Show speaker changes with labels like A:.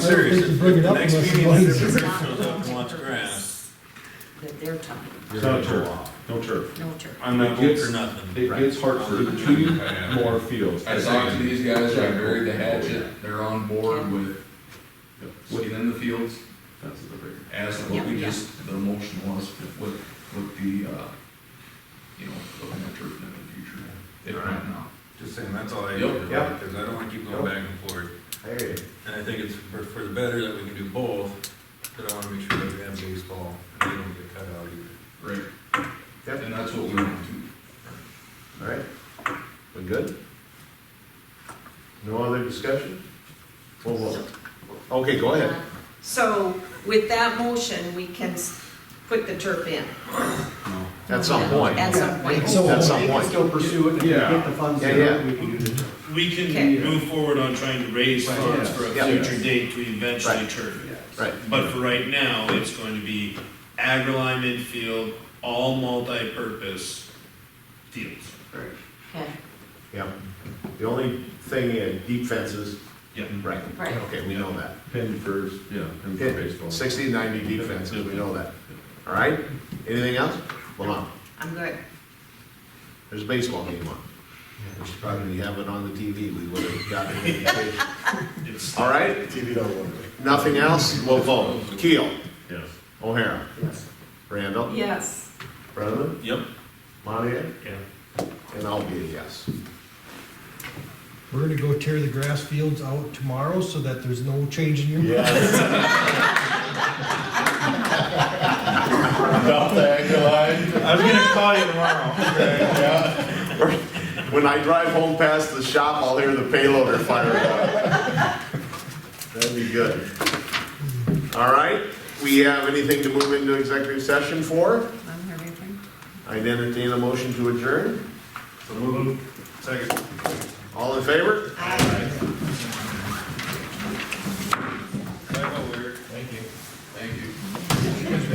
A: serious.
B: they can bring it
A: The
B: up
A: next
B: unless
A: meeting, if
B: somebody's-
A: everybody
C: Not
A: shows
C: the
A: up and wants
C: turf.
A: grass.
C: That they're talking,
D: You're gonna
E: Not a
D: go
E: turf.
D: off.
E: No turf.
C: no turf.
A: I'm not voting for nothing.
D: It gets Hartford two more fields.
F: I talked to these guys, I buried the hatchet, they're on board with looking in the fields
D: That's the bigger.
F: as what we just, the motion was with, with the, uh, you know, looking at turf in the future, if not now.
A: Just saying, that's all I
F: Yep.
A: do,
E: Yep.
A: because I don't wanna keep going
E: Yep.
A: back and forth.
E: I hear you.
A: And I think it's for, for the better that we can do both, but I wanna make sure that we have baseball, and they don't get cut out either.
F: Right.
E: Yep.
F: And that's what we want to.
E: All right, we good? No other discussion? Well, well, okay, go ahead.
G: So with that motion, we can s- put the turf in.
E: At some point.
C: At some point.
B: So-
E: At some
H: They can
E: point.
H: still pursue it, and if we
D: Yeah.
H: get the funds,
E: Yeah,
H: there,
E: yeah.
H: we can do the
I: We
G: Okay.
I: can move forward on trying to raise
H: Right,
I: funds
D: yes,
I: for a
E: yeah.
I: future date to eventually
E: Right.
I: turf it.
E: Right,
I: But for right now, it's going to be agri-lime infield, all multi-purpose fields.
C: Okay,
E: yeah. The only thing, uh, deep fences,
I: Yeah.
E: right,
C: Right.
E: okay, we know that.
D: Pin first, yeah, pin for baseball.
E: Hit Sixty, ninety deep fences, we know that. All right, anything else? Lamont,
G: I'm good.
E: there's a baseball game on. We should probably have it on the TV, we would have gotten an invitation.
I: It's
E: All right?
H: TV don't work.
E: Nothing else, we'll vote. Keel,
D: Yes.
E: O'Hara,
H: Yes.
E: Randall,
G: Yes.
E: Brenneman,
A: Yep.
E: Monahan,
I: Yeah.
E: and I'll be a yes.
B: We're gonna go tear the grass fields out tomorrow so that there's no change in your.
E: Yes. About the
I: I was gonna call you tomorrow.
E: When I drive home past the shop, I'll hear the payloader fire up. That'd be good. All right, we have anything to move into executive session for?
G: I'm here, everything.
E: I entertain a motion to adjourn.
A: Second.
E: All in favor?